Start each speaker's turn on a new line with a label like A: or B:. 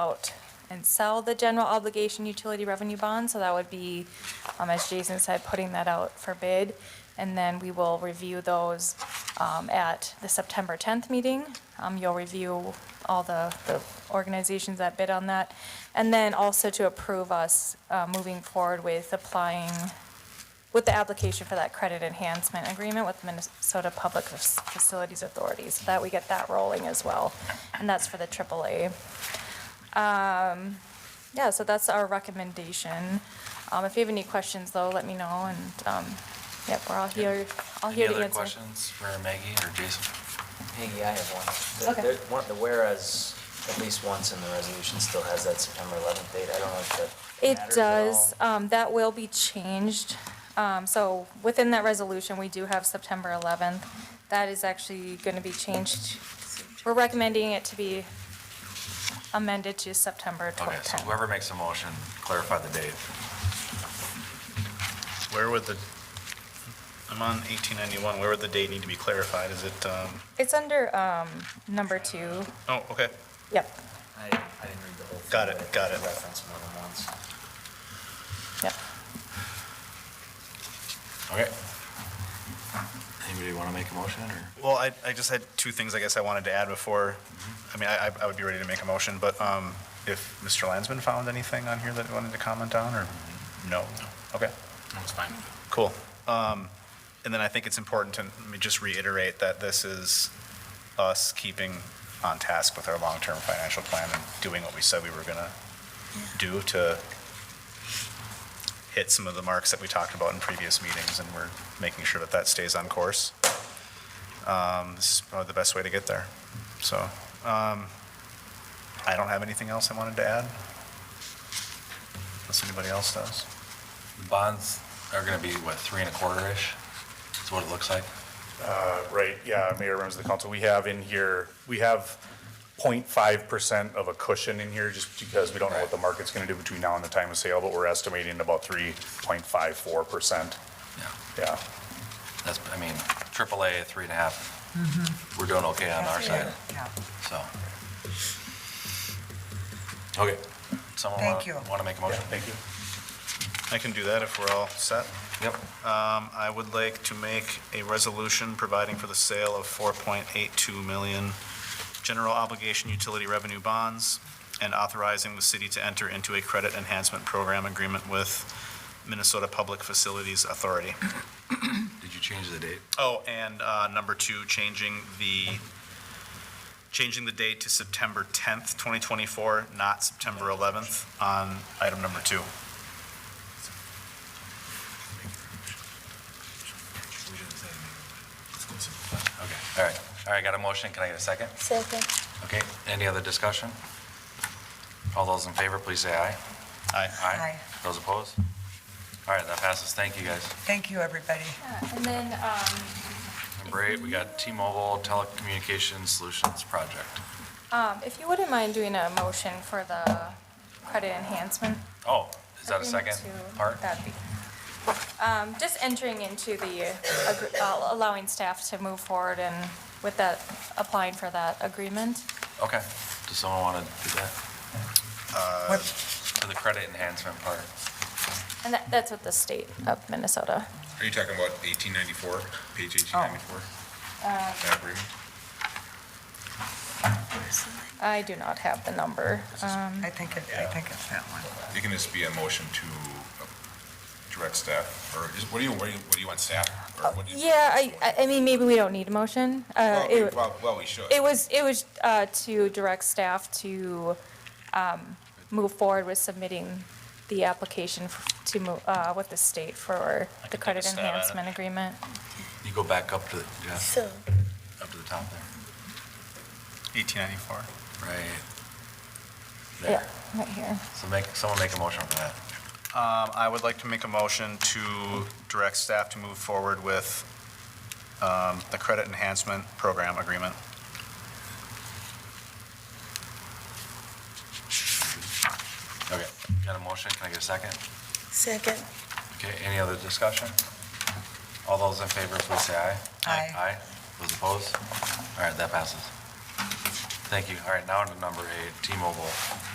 A: out and sell the general obligation utility revenue bond. So that would be, um, as Jason said, putting that out for bid. And then we will review those um, at the September 10th meeting. Um, You'll review all the the organizations that bid on that. And then also to approve us uh, moving forward with applying, with the application for that credit enhancement agreement with Minnesota Public Facilities Authority, so that we get that rolling as well. And that's for the AAA. Um, yeah, so that's our recommendation. Um, if you have any questions, though, let me know, and, um, yep, we're all here, all here to answer.
B: Any other questions for Maggie or Jason?
C: Peggy, I have one. The-
A: Okay.
C: there- one- The whereas, at least once in the resolution, still has that September 11th date. I don't know if that
A: It
C: matters at all.
A: does, um, that will be changed. Um, so within that resolution, we do have September eleventh. That is actually gonna be changed. We're recommending it to be amended to September
B: Okay,
A: twenty
B: so
A: ten.
B: whoever makes a motion, clarify the date.
D: Where would the, I'm on 1891, where would the date need to be clarified? Is it, um,
A: It's under, um, number two.
D: oh, okay,
A: Yep,
C: I I didn't read the whole thing.
D: Got it,
C: but I
D: got it.
C: Referenced more than once.
A: yep.
B: Okay. Anybody want to make a motion or?
D: well, I, I just had two things I guess I wanted to add before, I mean, I, I would be ready to make a motion, but um, if Mr. Landsman found anything on here that he wanted to comment on, or no? Okay.
B: That's fine.
D: Cool. Um, And then I think it's important to let me just reiterate that this is us keeping on task with our long-term financial plan and doing what we said we were going to do to hit some of the marks that we talked about in previous meetings, and we're making sure that that stays on course. Um, This is probably the best way to get there. So um, I don't have anything else I wanted to add, unless anybody else does.
B: Bonds are going to be, what, three and a quarter-ish? That's what it looks like?
E: Uh, Right, yeah, Mayor, members of the council, we have in here, we have 0.5% of a cushion in here just because we don't know what the market's going to do between now and the time of sale, but we're estimating about 3.54%.
B: Yeah.
E: Yeah,
B: That's, I mean, AAA, three and a half.
F: Mm-hmm.
B: We're doing okay on our side, so. Okay. Someone
F: Thank you.
B: want to make a motion?
E: thank you.
D: I can do that if we're all set.
B: Yep.
D: Um, I would like to make a resolution providing for the sale of 4.82 million general obligation utility revenue bonds and authorizing the city to enter into a credit enhancement program agreement with Minnesota Public Facilities Authority.
B: Did you change the date?
D: Oh, and uh, number two, changing the, changing the date to September 10th, 2024, not September 11th on item number two.
B: We didn't say anything. Okay, all right. All right, got a motion. Can I get a second?
A: Second.
B: Okay, any other discussion? All those in favor, please say aye.
D: Aye.
F: Aye.
B: Those opposed? All right, that passes. Thank you, guys.
F: Thank you, everybody.
A: And then, um,
B: Number eight, we got T-Mobile Telecommunications Solutions Project.
A: um, if you wouldn't mind doing a motion for the credit enhancement.
B: Oh, is that a
A: agreement
B: second
A: to-
B: part?
A: that'd be- Um, just entering into the, agr- uh, allowing staff to move forward and with that, applying for that agreement.
B: Okay. Does someone want to do that?
F: What-
B: For the credit enhancement part?
A: And that, that's with the state of Minnesota.
G: Are you talking about 1894, page
A: Oh.
G: 1894?
A: Uh,
G: That agreement?
A: I do not have the number. Um,
F: I think, it- I think it's that one.
G: It can just be a motion to uh, direct staff, or is, what do you, what do you, what do you want staff? or what do you-
A: oh, yeah, I, I- I mean, maybe we don't need a motion. Uh,
G: Well, we-
A: it,
G: Well, well, we should.
A: it was, it was, uh, to direct staff to, um, move forward with submitting the application f- to move, uh, with the state for the credit
D: stab at it.
A: enhancement agreement.
B: You go back up to, the yeah,
H: So,
B: up to the top there.
D: 1894.
B: Right.
A: Yeah,
B: There.
A: right here.
B: So make, someone make a motion for that.
D: Um, I would like to make a motion to direct staff to move forward with um, the credit enhancement program agreement.
B: Okay. Got a motion? Can I get a second?
H: second,
B: Okay, any other discussion? All those in favor, please say aye.
F: Aye.
B: Aye. Those opposed? All right, that passes. Thank you. All right, now to number eight, T-Mobile